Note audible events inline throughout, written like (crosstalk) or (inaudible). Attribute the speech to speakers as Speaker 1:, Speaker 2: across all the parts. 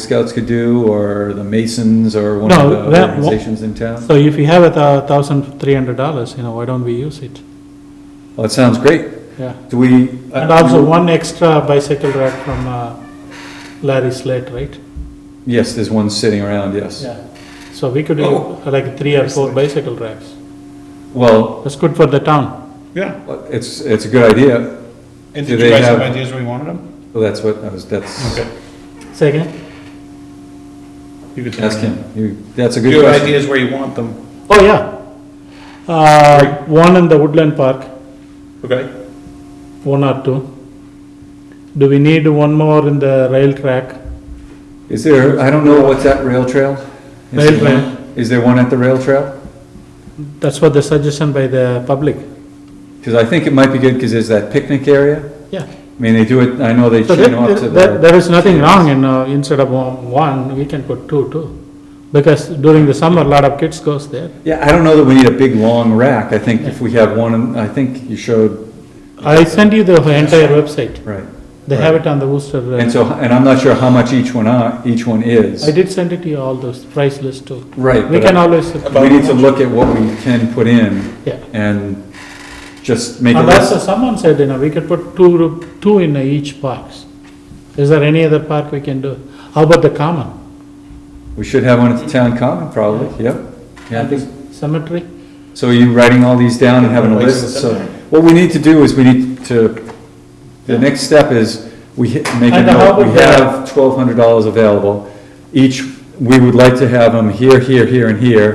Speaker 1: Scouts could do, or the Masons, or one
Speaker 2: No,
Speaker 1: of the
Speaker 2: that-
Speaker 1: organizations in town?
Speaker 2: So if you have a thou- thousand three hundred dollars, you know, why don't we use it?
Speaker 1: Well, it sounds great.
Speaker 2: Yeah.
Speaker 1: Do we? uh,
Speaker 2: And also one extra bicycle rack from uh, Larry Slate, right?
Speaker 1: Yes, there's one sitting around, yes.
Speaker 2: Yeah. So we could do uh,
Speaker 3: Oh.
Speaker 2: like three or four
Speaker 3: Slate.
Speaker 2: bicycle racks.
Speaker 1: Well,
Speaker 2: That's good for the town.
Speaker 3: Yeah.
Speaker 1: it's, it's a good idea.
Speaker 3: And
Speaker 1: Do
Speaker 3: did you
Speaker 1: they
Speaker 3: guys have
Speaker 1: have-
Speaker 3: ideas where you wanted them?
Speaker 1: Well, that's what, I was. that's,
Speaker 2: Say again?
Speaker 3: You could
Speaker 1: ask him. You- That's a
Speaker 3: Do
Speaker 1: good
Speaker 3: you have
Speaker 1: question.
Speaker 3: ideas where you want them?
Speaker 2: Oh, yeah. Uh, one in the Woodland Park,
Speaker 3: Okay.
Speaker 2: one or two. Do we need one more in the rail track?
Speaker 1: Is there, I don't know what's that rail trail? Is
Speaker 2: Rail
Speaker 1: there
Speaker 2: trail.
Speaker 1: one- Is there one at the rail trail?
Speaker 2: That's what the suggestion by the public.
Speaker 1: Because I think it might be good, because there's that picnic area.
Speaker 2: Yeah.
Speaker 1: I mean, they do it, I know they
Speaker 2: So
Speaker 1: chain
Speaker 2: there-
Speaker 1: off to
Speaker 2: there-
Speaker 1: the,
Speaker 2: there is nothing wrong in, uh, instead of one- one, we can put two, too. Because during the summer, a lot of kids goes there.
Speaker 1: yeah, I don't know that we need a big, long rack. I think if we have one, I think you showed,
Speaker 2: I sent you the entire website.
Speaker 1: right.
Speaker 2: They have it on the Worcester. uh,
Speaker 1: And so, and I'm not sure how much each one are, each one is.
Speaker 2: I did send it to you, all those price list, too.
Speaker 1: Right.
Speaker 2: We
Speaker 1: but
Speaker 2: can
Speaker 1: I-
Speaker 2: always,
Speaker 1: We need to look at what we can put in
Speaker 2: yeah.
Speaker 1: and just make a
Speaker 2: Unless
Speaker 1: list.
Speaker 2: uh, someone said, you know, we could put two, ru- two in each parks. Is there any other park we can do? How about the common?
Speaker 1: We should have one at the town common, probably, yep. Yeah, I think.
Speaker 2: Cemetery?
Speaker 1: So are you writing all these down and having a
Speaker 3: Like
Speaker 1: list? So
Speaker 3: something.
Speaker 1: what we need to do is we need to, the next step is we hi- make a
Speaker 2: And how
Speaker 1: note, we
Speaker 2: about the-
Speaker 1: have twelve hundred dollars available. Each, we would like to have them here, here, here, and here.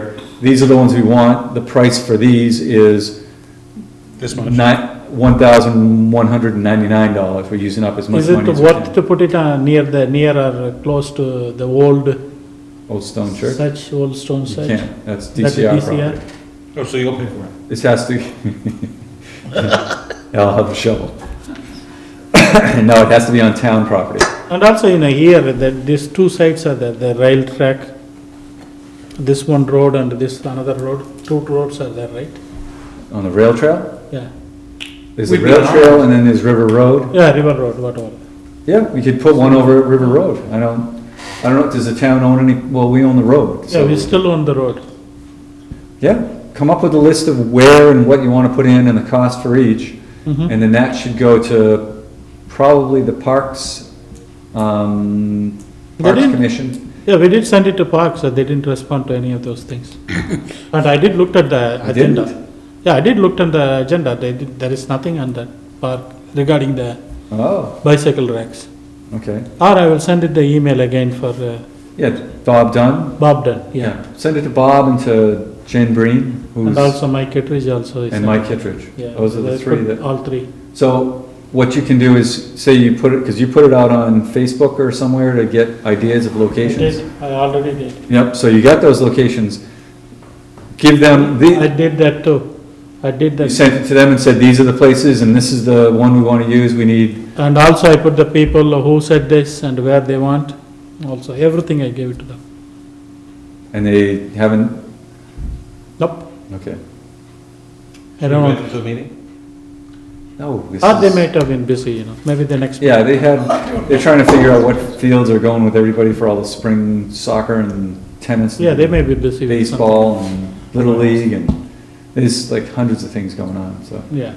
Speaker 1: These are the ones we want. The price for these is
Speaker 3: This much.
Speaker 1: not, one thousand one hundred and ninety-nine dollars. We're using up as much
Speaker 2: Is
Speaker 1: money
Speaker 2: it
Speaker 1: as we
Speaker 2: worth
Speaker 1: can.
Speaker 2: to put it uh, near the, near or close to the old
Speaker 1: Old Stone Church?
Speaker 2: such, old stone
Speaker 1: You
Speaker 2: such?
Speaker 1: can't, that's
Speaker 2: That's a
Speaker 1: DCR
Speaker 2: DCR?
Speaker 1: property.
Speaker 3: Oh, so you'll pay for it?
Speaker 1: This has to, (laughs) I'll have a shovel. (coughs) No, it has to be on town property.
Speaker 2: And also in a year, that these two sides are there, the rail track, this one road and this another road, two roads are there, right?
Speaker 1: On the rail trail?
Speaker 2: Yeah,
Speaker 1: There's the
Speaker 3: We'd be
Speaker 1: rail
Speaker 3: on-
Speaker 1: trail and then there's River Road.
Speaker 2: yeah, river road, whatever.
Speaker 1: Yeah, we could put one over at River Road. I don't, I don't know, does the town own any, well, we own the road.
Speaker 2: Yeah,
Speaker 1: so-
Speaker 2: we still own the road.
Speaker 1: Yeah, come up with a list of where and what you want to put in and the cost for each.
Speaker 2: Mhm.
Speaker 1: And then that should go to probably the Parks, um,
Speaker 2: They
Speaker 1: Parks
Speaker 2: didn't-
Speaker 1: Commission.
Speaker 2: Yeah, we did send it to Parks, and they didn't respond to any of those
Speaker 1: (laughs)
Speaker 2: things. But I did looked at the
Speaker 1: I didn't?
Speaker 2: agenda. Yeah, I did looked at the agenda, they did, there is nothing on that park regarding the
Speaker 1: Oh,
Speaker 2: bicycle racks.
Speaker 1: okay.
Speaker 2: Or I will send it the email again for uh,
Speaker 1: Yeah, Bob Dunn,
Speaker 2: Bob Dunn, yeah.
Speaker 1: Yeah, send it to Bob and to Jen Breen,
Speaker 2: And
Speaker 1: who's,
Speaker 2: also Mike Kittredge also is.
Speaker 1: and
Speaker 2: uh,
Speaker 1: Mike Kittredge.
Speaker 2: Yeah,
Speaker 1: Those are the
Speaker 2: they
Speaker 1: three
Speaker 2: put
Speaker 1: that,
Speaker 2: All three.
Speaker 1: so what you can do is, say you put it, because you put it out on Facebook or somewhere to get ideas of
Speaker 2: I
Speaker 1: locations.
Speaker 2: did, I already did.
Speaker 1: Yep, so you got those locations. Give them,
Speaker 2: I
Speaker 1: the.
Speaker 2: did that too. I did
Speaker 1: you
Speaker 2: that.
Speaker 1: sent it to them and said, these are the places and this is the one we want to use, we need,
Speaker 2: And also I put the people who said this and where they want, also, everything I gave it to them.
Speaker 1: and they haven't,
Speaker 2: Nope,
Speaker 1: okay.
Speaker 2: I don't know.
Speaker 3: Invite them To the meeting?
Speaker 1: No, this
Speaker 2: Or they
Speaker 1: is-
Speaker 2: might have been busy, you know, maybe the next.
Speaker 1: Yeah, they had, they're trying to figure out what fields are going with everybody for all the spring soccer and tennis.
Speaker 2: Yeah, they
Speaker 1: and-
Speaker 2: may be busy. with something.
Speaker 1: baseball and Little League and there's like hundreds of things going on, so,
Speaker 2: Yeah,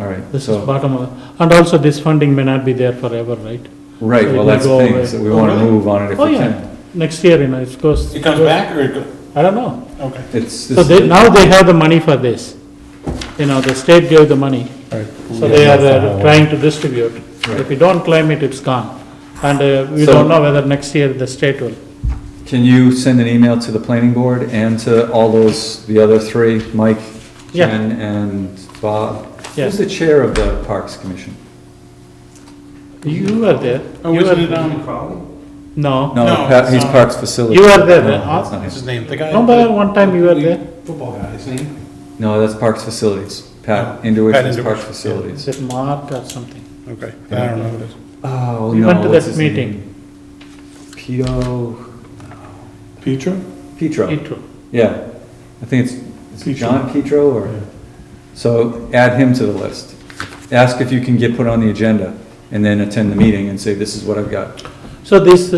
Speaker 1: all right.
Speaker 2: this is
Speaker 1: so-
Speaker 2: bottom of, and also this funding may not be there forever, right?
Speaker 1: Right,
Speaker 2: so it
Speaker 1: well,
Speaker 2: will
Speaker 1: that's the
Speaker 2: go
Speaker 1: thing,
Speaker 2: away.
Speaker 1: so we
Speaker 3: Oh,
Speaker 1: want to
Speaker 3: really?
Speaker 1: move on it if
Speaker 2: Oh,
Speaker 1: we
Speaker 2: yeah,
Speaker 1: can.
Speaker 2: next year, you know, it goes.
Speaker 3: It comes back or it go
Speaker 2: I don't know.
Speaker 3: okay.
Speaker 1: It's,
Speaker 2: So
Speaker 1: this
Speaker 2: they, now they have the money for this. You know, the state gave the money. So they are uh, trying to distribute. If you don't claim it, it's gone. And uh, we
Speaker 1: So-
Speaker 2: don't know whether next year the state will.
Speaker 1: can you send an email to the planning board and to all those, the other three, Mike,
Speaker 2: Yeah.
Speaker 1: Jen, and Bob?
Speaker 2: Yeah.
Speaker 1: Who's the chair of the Parks Commission?
Speaker 2: You were there.
Speaker 3: Oh,
Speaker 2: You
Speaker 3: isn't
Speaker 2: were-
Speaker 3: it, um, Crowley?
Speaker 2: No.
Speaker 1: No,
Speaker 3: No,
Speaker 1: Pat- he's
Speaker 3: it's not.
Speaker 1: Parks Facilities.
Speaker 2: You were there,
Speaker 1: No,
Speaker 2: right?
Speaker 1: that's not
Speaker 3: What's
Speaker 1: him.
Speaker 3: his name? The guy.
Speaker 2: Remember one time you were there?
Speaker 3: Football guy, his name?
Speaker 1: No, that's Parks Facilities. Pat Indowich
Speaker 3: Pat
Speaker 1: is Parks
Speaker 3: Indowich.
Speaker 1: Facilities.
Speaker 2: Is Oh, it Mark or something?
Speaker 3: Okay, I don't know who it is.
Speaker 1: Oh,
Speaker 2: We
Speaker 1: no,
Speaker 2: went to
Speaker 1: what's
Speaker 2: that
Speaker 1: his name?
Speaker 2: meeting.
Speaker 1: Pito,
Speaker 3: Petra?
Speaker 1: Petro.
Speaker 2: Intro.
Speaker 1: Yeah, I think it's,
Speaker 3: Petro.
Speaker 1: it's John Petro or, so add him to the list. Ask if you can get put on the agenda and then attend the meeting and say, this is what I've got.
Speaker 2: So this, uh,